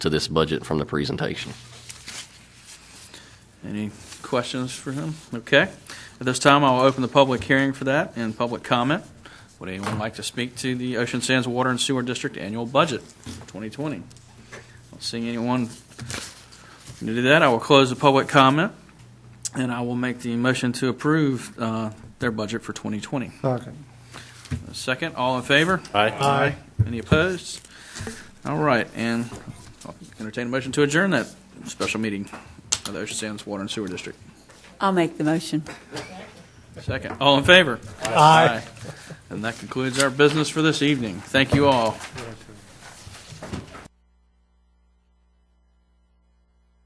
to this budget from the presentation. Any questions for him? Okay. At this time, I'll open the public hearing for that and public comment. Would anyone like to speak to the Ocean Sands Water and Sewer District Annual Budget 2020? Not seeing anyone to do that, I will close the public comment, and I will make the motion to approve uh, their budget for 2020. Second. Second, all in favor? Aye. Any opposed? All right, and I'll entertain a motion to adjourn that special meeting of the Ocean Sands Water and Sewer District. I'll make the motion. Second. All in favor? Aye. And that concludes our business for this evening. Thank you all.